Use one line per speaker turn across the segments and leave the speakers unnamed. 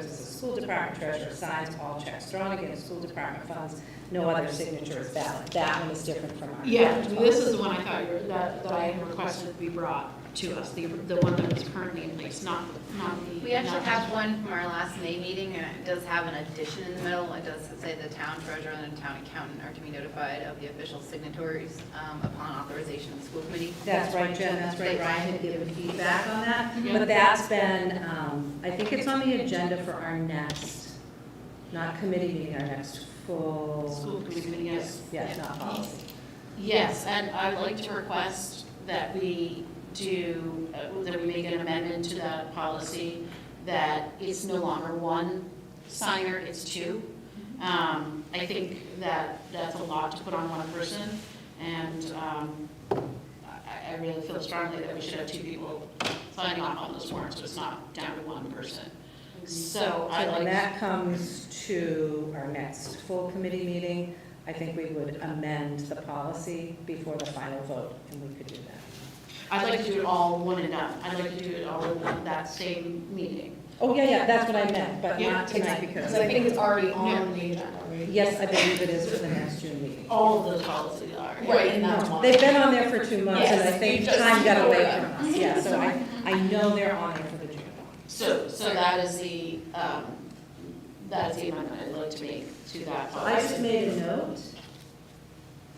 School Department treasurer signs all checks drawn against school department funds, no other signature is valid. That one is different from our.
Yeah, this is the one I thought you were, that, that I had requested be brought to us, the, the one that was currently in place, not, not the.
We actually
not-
have one from our last May meeting, and it does have an addition in the middle. It does say the town treasurer and the town accountant are to be notified of the official signatories um, upon authorization of the school committee.
That's right, Jen, that's right, Ryan had given feedback on that. But that's been, um, I think it's on the agenda for our next, not committee meeting, our next full,
School committee, yes.
yes, not policy.
Yes, and I'd like to request that we do, uh, that we make an amendment to that policy that it's no longer one signer, it's two. Um, I think that that's a lot to put on one person, and um, I I really feel strongly that we should have two people signing off on those warrants, so it's not down to one person. So I
So when
like,
that comes to our next full committee meeting, I think we would amend the policy before the final vote, and we could do that.
I'd like to do it all one and done. I'd like to do it all in one- that same meeting.
Oh, yeah, yeah, that's what I meant, but
Yeah,
not tonight
Because
because,
I think it's already on the agenda, right?
yes, I believe it is for the next June meeting.
All of the policies are.
Right, and that's one.
They've been on there for two months, and I
Yes,
think
you just-
time got away from us, yeah, so I, I know they're on there for the June.
So, so that is the, um, that is the amendment I'd like to make to that
I just
policy.
made a note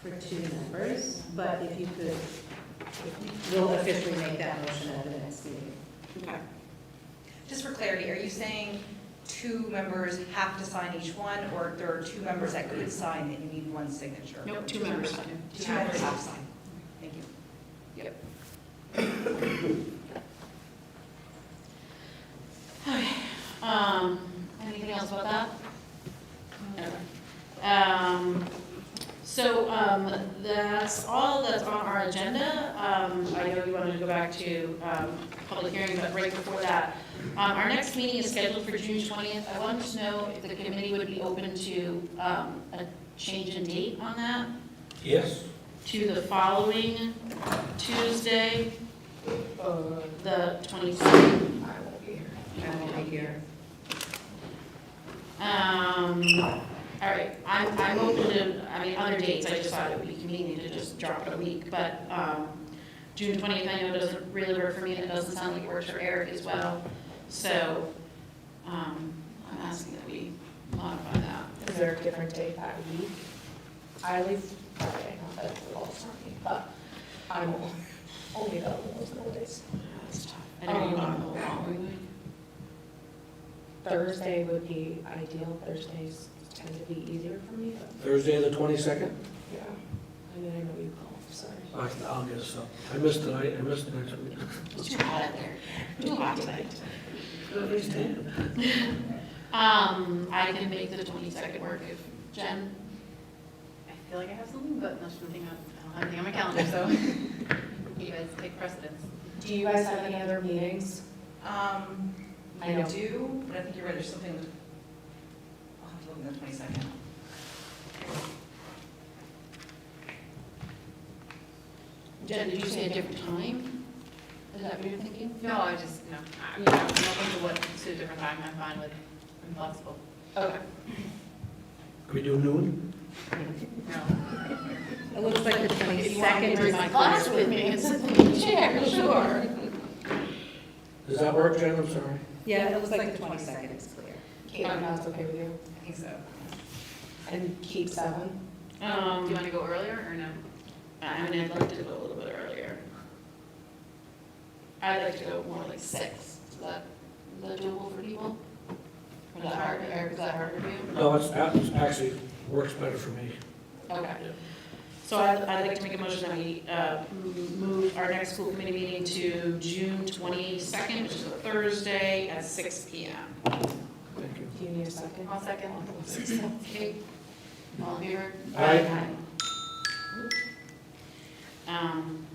for two members, but if you could, we'll officially make that motion at the next meeting.
Okay.
Just for clarity, are you saying two members have to sign each one, or there are two members that could sign and you need one signature?
Nope, two members sign.
Two members have to sign. Thank you.
Okay. Um, anything else about that? Okay. Um, so, um, that's all that's on our agenda. Um, I know you wanted to go back to, um, public hearing, but right before that, um, our next meeting is scheduled for June twentieth. I wanted to know if the committee would be open to, um, a change in date on that
Yes,
to the following Tuesday,
Uh,
the twenty-second.
I won't be here.
I will be here. Um, all right, I'm, I'm open to, I mean, other dates, I just thought it would be convenient to just drop it a week, but, um, June twentieth, I know doesn't really work for me, and it doesn't sound like it works for Eric as well, so, um, I'm asking that we modify that.
Is there a different day that week? I leave Friday, not that it's all Sunday, but I'm only available those Mondays.
That's tough. I know you want to hold on.
Thursday would be ideal, Thursdays tend to be easier for me, but,
Thursday, the 22nd.
yeah. I mean, I know you called, sorry.
I- I'll get us up. I missed tonight, I missed next week.
It's too hot out there, too hot tonight.
Understand.
Um, I can make the twenty-second work if, Jen?
I feel like I have something, but that's nothing, on- I don't have anything on my calendar, so you guys take precedence.
Do you guys have any other meetings?
Um,
I
I
know.
do, but I think you're right, there's something, I'll have to look in the twenty-second.
Jen, did you say a different time? Is that what you're thinking?
No, I just, no, I mean, I'm open to what, to a different time, I'm fine with, I'm flexible.
Okay.
Can we do noon?
No.
It looks like the
If you want me to bring my
twenty-second.
glass with me and sit in the chair, sure.
Does that work, Jen? I'm sorry.
Yeah, it looks like the twenty-second is clear.
Caitlin,
Um,
that's okay with you?
I think so.
And keep seven?
Do you
Um,
want to go earlier or no?
I mean, I'd like to go a little bit earlier. I'd like to go more like six. Is that, is that doable for people? Or is that hard, Eric, is that harder for you?
No, it's, it's actually works better for me.
Okay. So I'd, I'd like to make a motion that we, uh, m- move our next school committee meeting to June twenty-second, which is a Thursday at six P M.
Thank you.
Do you need a second?
I'll second.
Okay, all in favor?
Aye.
Um,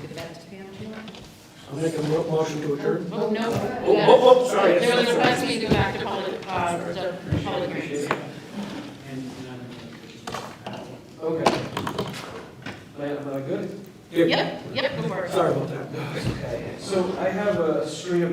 Give that to Pam tomorrow.
I'll make a mo- motion to adjourn.
oh, no.
Oh, oh, oh, sorry.
There was a
Sorry.
request me to go back to public, uh, to public hearings.
Okay. Am I good?
Here.
Yep, yep, go for it.
Sorry about that.
So I have a string of